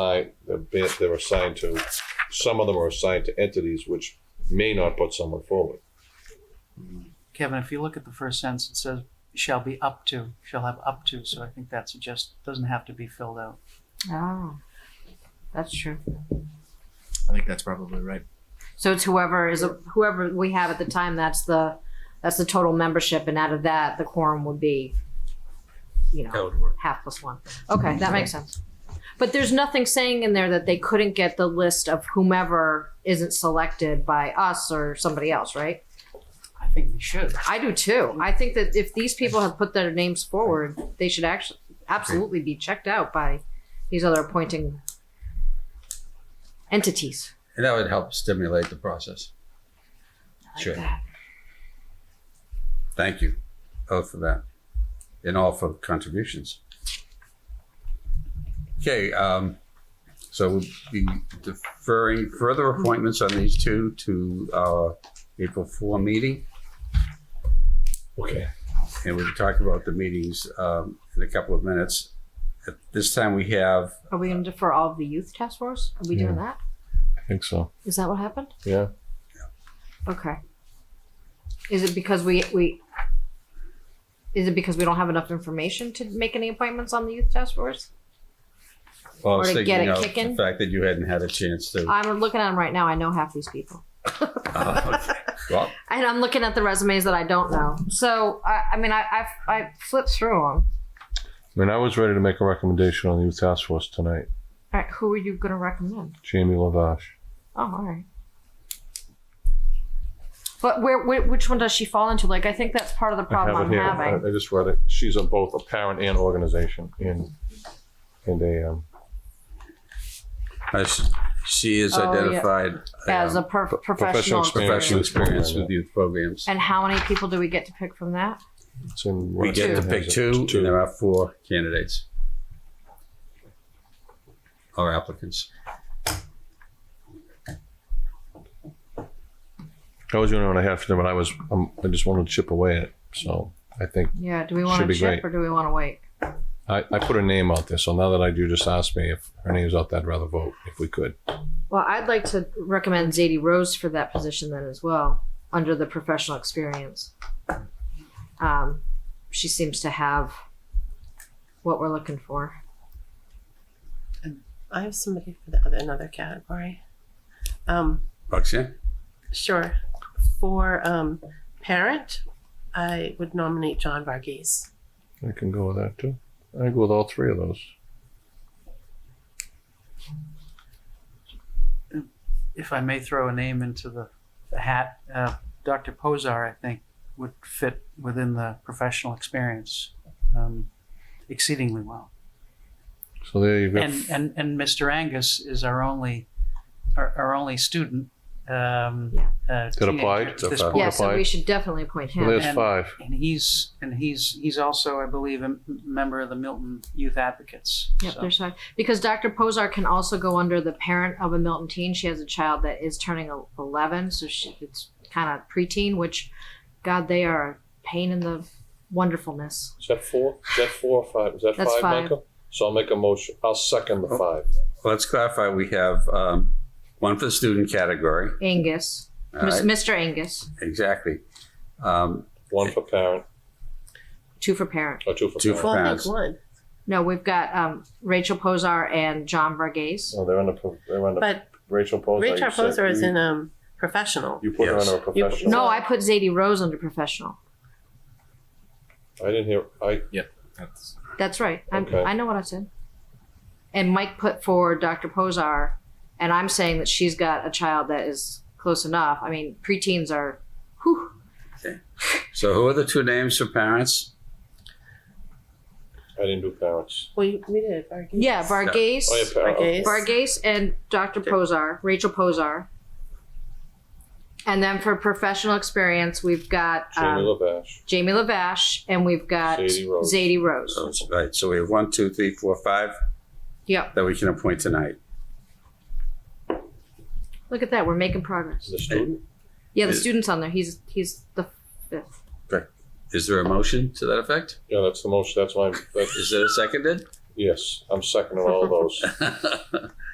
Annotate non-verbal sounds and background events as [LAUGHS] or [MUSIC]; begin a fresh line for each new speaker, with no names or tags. I, they're ban- they're assigned to, some of them are assigned to entities which may not put someone forward.
Kevin, if you look at the first sentence, it says shall be up to, shall have up to, so I think that suggests doesn't have to be filled out.
Oh, that's true.
I think that's probably right.
So it's whoever is whoever we have at the time. That's the that's the total membership, and out of that, the quorum would be, you know,
would work.
half plus one. Okay, that makes sense. But there's nothing saying in there that they couldn't get the list of whomever isn't selected by us or somebody else, right?
I think we should.
I do too. I think that if these people have put their names forward, they should actually absolutely be checked out by these other appointing entities.
And that would help stimulate the process.
like
Sure.
that.
Thank you both for that and all for contributions. Okay, um, so we'll be deferring further appointments on these two to our April four meeting.
Okay.
And we'll talk about the meetings, um, in a couple of minutes. At this time, we have,
Are we going to defer all of the youth task force? Are we doing that?
I think so.
Is that what happened?
Yeah.
Okay. Is it because we we? Is it because we don't have enough information to make any appointments on the youth task force?
well, I was
Or to get
thinking
it
of the
kicking?
fact that you hadn't had a chance to.
I'm looking at them right now. I know half these people,
Oh,
Uh, [LAUGHS]
okay. Well,
and I'm looking at the resumes that I don't know. So I, I mean, I I've, I flipped through them.
I mean, I was ready to make a recommendation on the youth task force tonight,
All right, who are you going to recommend?
Jamie Lavash.
Oh, all right. But where, where which one does she fall into? Like I think that's part of the
I
problem
have it
I'm
here.
having.
I I just read it. She's on both a parent and organization and, and a, um,
I s- she is
Oh, yeah.
identified.
as
um,
a per-
professional
professional,
experience.
experience.
professional experience with youth programs.
And how many people do we get to pick from that?
it's in.
We get to pick two, and there are four candidates. Or applicants.
I was the only one I had for them, but I was, um, I just wanted to chip away at it. So I think,
Yeah, do we
Should
want to
be
chip
great.
or do we want to wait?
I, I put her name out there. So now that I do, just ask me if her name's out there, I'd rather vote if we could.
Well, I'd like to recommend Zadie Rose for that position then as well, under the professional experience. Um, she seems to have what we're looking for.
I have somebody for the other another category. Um,
Roxanne?
sure. For um, parent, I would nominate John Varghese.
I can go with that too. I go with all three of those.
If I may throw a name into the, the hat, uh, Dr. Posar, I think, would fit within the professional experience um, exceedingly well.
So there you go.
And, and, and Mr. Angus is our only, our, our only student. Um,
Yeah.
uh,
That
teenager
applied?
At this
That
point.
applied?
Yeah, so we
Qualified.
should definitely appoint
so
him.
there's
and-
five.
and he's and he's he's also i believe a m- member of the milton youth advocates
Yep,
So-
there's five. Because Dr. Posar can also go under the parent of a Milton teen. She has a child that is turning el- 11, so she, it's kind of preteen, which, God, they are a pain in the wonderfulness.
Is that four? Is that four or five? Is that
That's five, five. Michael?
So I'll make a motion. I'll second the five.
Let's clarify, we have um, one for the student category.
Angus,
All
Mis-
right,
Mr. Angus,
Exactly. Um,
One for parent
two for parent.
or two for
Two for-
Well, I
Parents.
think one,
No, we've got um, Rachel Posar and John Verghese.
No, Oh, they're under, pro- they're under
but
Rachel Poser.
Rachel Poser is in um, professional.
You put her
Yes.
under a
You-
professional.
No, I put Zadie Rose under professional.
I didn't hear, I,
That's
That's right. I'm,
Okay.
I know what I said. And Mike put forward Dr. Posar, and I'm saying that she's got a child that is close enough. I mean, preteens are, whew.
So who are the two names for parents?
I didn't do parents.
Well, you- we did Varghese.
Yeah, Verghese,
Oh, yeah, parent.
Varghese.
Varghese and Dr. Posar, Rachel Posar. And then for professional experience, we've got um,
Jamie Lavash.
Jamie Lavash, and we've got
Zadie
Zadie
Rose.
Rose.
So it's- Right, so we have one, two, three, four, five
Yep.
that we can appoint tonight.
Look at that. We're making progress.
The student?
Yeah, the
Is-
student's on there. He's he's the fifth.
Is there a motion to that effect?
Yeah, that's the motion, that's why, I'm- that's
Is it seconded? [LAUGHS]
Yes, I'm second on all those.